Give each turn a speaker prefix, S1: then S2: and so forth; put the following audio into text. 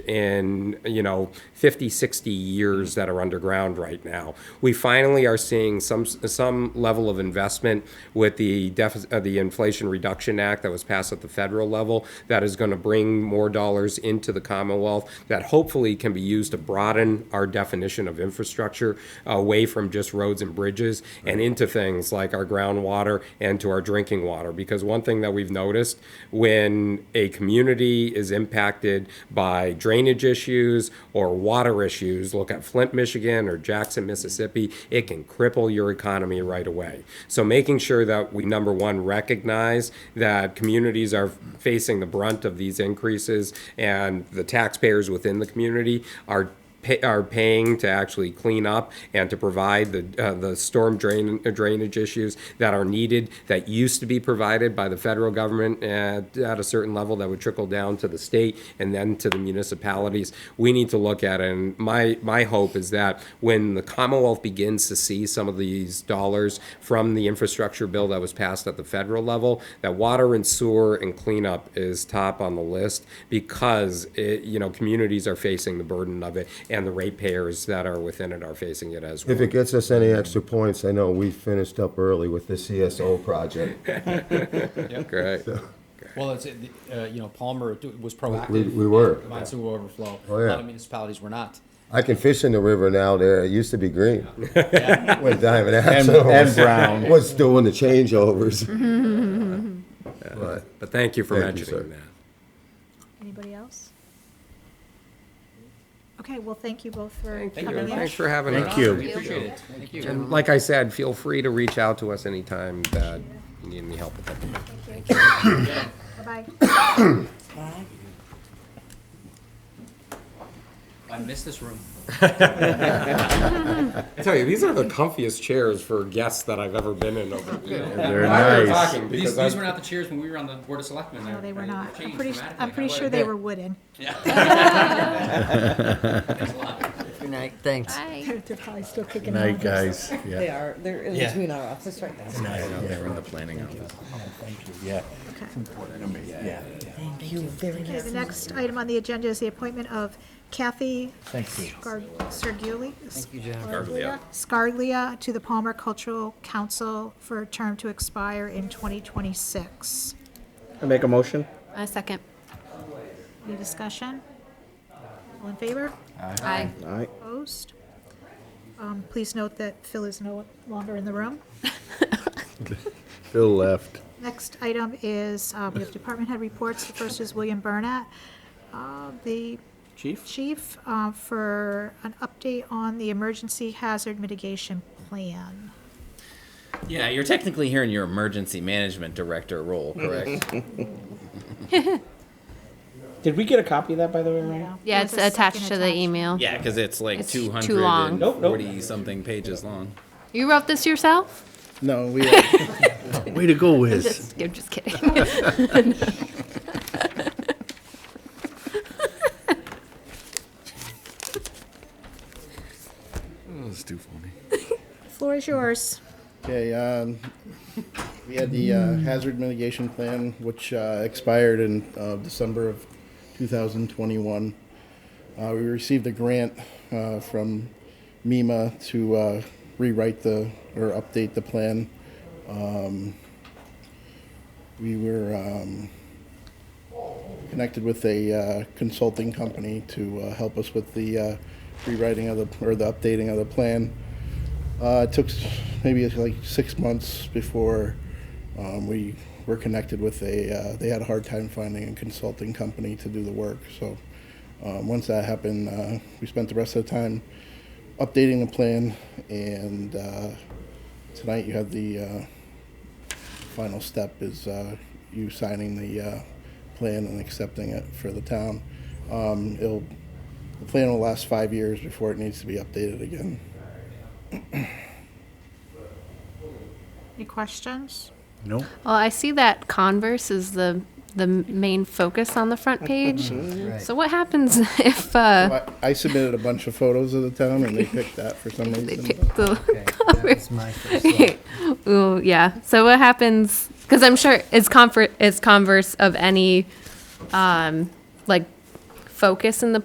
S1: in, you know, 50, 60 years that are underground right now. We finally are seeing some, some level of investment with the deficit, uh, the Inflation Reduction Act that was passed at the federal level that is going to bring more dollars into the Commonwealth that hopefully can be used to broaden our definition of infrastructure away from just roads and bridges and into things like our groundwater and to our drinking water. Because one thing that we've noticed when a community is impacted by drainage issues or water issues, look at Flint, Michigan or Jackson, Mississippi, it can cripple your economy right away. So making sure that we, number one, recognize that communities are facing the brunt of these increases and the taxpayers within the community are pay, are paying to actually clean up and to provide the uh, the storm drain drainage issues that are needed that used to be provided by the federal government at, at a certain level that would trickle down to the state and then to the municipalities. We need to look at it. And my my hope is that when the Commonwealth begins to see some of these dollars from the infrastructure bill that was passed at the federal level, that water and sewer and cleanup is top on the list because it, you know communities are facing the burden of it and the ratepayers that are within it are facing it as well.
S2: If it gets us any extra points, I know we finished up early with the CSO project.
S1: Correct.
S3: Well, it's, uh, you know, Palmer d- was proactive.
S2: We- we were.
S3: in Combined sewer overflow.
S2: Oh,
S3: A
S2: yeah.
S3: lot of municipalities were not.
S2: I can fish in the river now there. It used to be green. When
S4: And,
S2: Diamond Axle
S4: and Brown.
S2: was doing the changeovers. But
S1: But thank you for
S2: Thank you,
S1: mentioning
S2: sir.
S1: that.
S5: Anybody else? Okay, well, thank you both for
S1: Thank you,
S5: coming
S1: and
S5: in.
S1: thanks for having us.
S2: Thank you.
S3: We appreciate it. Thank you.
S1: And like I said, feel free to reach out to us anytime that you need any help with anything.
S5: Bye-bye.
S3: I miss this room.
S1: I tell you, these are the comfiest chairs for guests that I've ever been in over the weekend.
S2: they're
S1: While we were
S2: nice.
S1: talking,
S3: These,
S1: because
S3: these
S1: I'm-
S3: were not the chairs when we were on the Board of Selectmen.
S5: No, they were
S3: They've
S5: not. I'm
S3: changed
S5: pretty, I'm
S3: dramatically.
S5: pretty
S3: Now
S5: sure they were wooden.
S3: it's a lot.
S6: Good night, thanks.
S5: They're they're probably still kicking around.
S4: Night, guys. Yeah.
S7: They are, they're in
S4: Yeah.
S7: between our office right now.
S4: They were in the planning office. Yeah.
S5: Okay.
S4: Yeah.
S7: Thank you very
S5: Okay, the next item on the agenda is the appointment of Kathy
S4: Thank you.
S5: Gar- Sergiuli.
S6: Thank you, John.
S5: Scarglia. Scarglia to the Palmer Cultural Council for a term to expire in 2026.
S8: Make a motion?
S9: A second.
S5: Any discussion? All in favor?
S9: Aye.
S8: All right.
S5: Opposed? Um, Please note that Phil is no longer in the room.
S4: Phil left.
S5: Next item is, uh, we have department head reports. The first is William Burnett, uh, the
S8: Chief?
S5: chief, uh, for an update on the emergency hazard mitigation plan.
S10: Yeah, you're technically here in your emergency management director role,
S3: Mm-hmm.
S10: correct?
S8: Did we get a copy of that, by the way, Ryan?
S9: Yeah,
S5: There's
S9: it's
S5: a
S9: attached
S5: second
S9: to the email.
S10: yeah, because it's like
S9: It's too long.
S8: Nope, nope.
S10: 240 something pages long.
S9: You wrote this yourself?
S8: No, we. Way to go, Wiz.
S9: Just, I'm just kidding.
S4: That's too funny.
S5: Floor is yours.
S11: Okay, um, we had the uh, hazard mitigation plan, which uh, expired in uh, December of 2021. Uh, we received a grant uh, from MEMA to uh, rewrite the or update the plan. Um, we were um, connected with a uh, consulting company to uh, help us with the uh, rewriting of the or the updating of the plan. Uh, it took s- maybe it's like six months before um, we were connected with a. Uh, they had a hard time finding a consulting company to do the work. So um, once that happened, uh, we spent the rest of the time updating the plan. And uh, tonight you have the uh, final step is uh, you signing the uh, plan and accepting it for the town. Um, it'll the plan will last five years before it needs to be updated again.
S5: Any questions?
S4: Nope.
S9: well, I see that Converse is the the main focus on the front page.
S6: Mm-hmm.
S9: So what happens if uh,
S11: I, I submitted a bunch of photos of the town, and they picked that for some
S9: they
S11: reason.
S9: pick the?
S6: That was my first one.
S9: Ooh, yeah. So what happens? Because I'm sure is comfort is Converse of any um, like focus in the